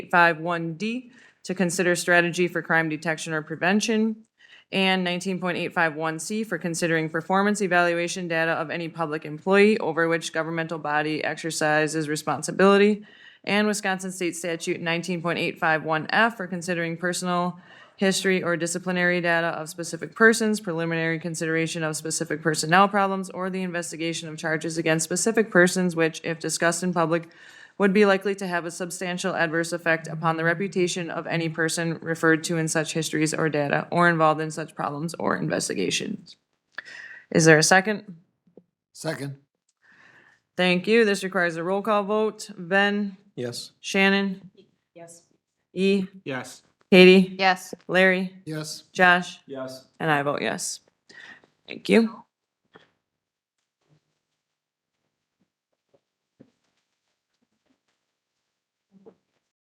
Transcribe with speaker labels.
Speaker 1: 19.851D to consider strategy for crime detection or prevention, and 19.851C for considering performance evaluation data of any public employee over which governmental body exercises responsibility, and Wisconsin State Statute 19.851F for considering personal history or disciplinary data of specific persons, preliminary consideration of specific personnel problems, or the investigation of charges against specific persons which, if discussed in public, would be likely to have a substantial adverse effect upon the reputation of any person referred to in such histories or data, or involved in such problems or investigations. Is there a second?
Speaker 2: Second.
Speaker 1: Thank you. This requires a roll call vote. Ben?
Speaker 3: Yes.
Speaker 1: Shannon?
Speaker 4: Yes.
Speaker 1: E?
Speaker 3: Yes.
Speaker 1: Katie?
Speaker 4: Yes.
Speaker 1: Larry?
Speaker 2: Yes.
Speaker 1: Josh?
Speaker 3: Yes.
Speaker 1: And I vote yes. Thank you.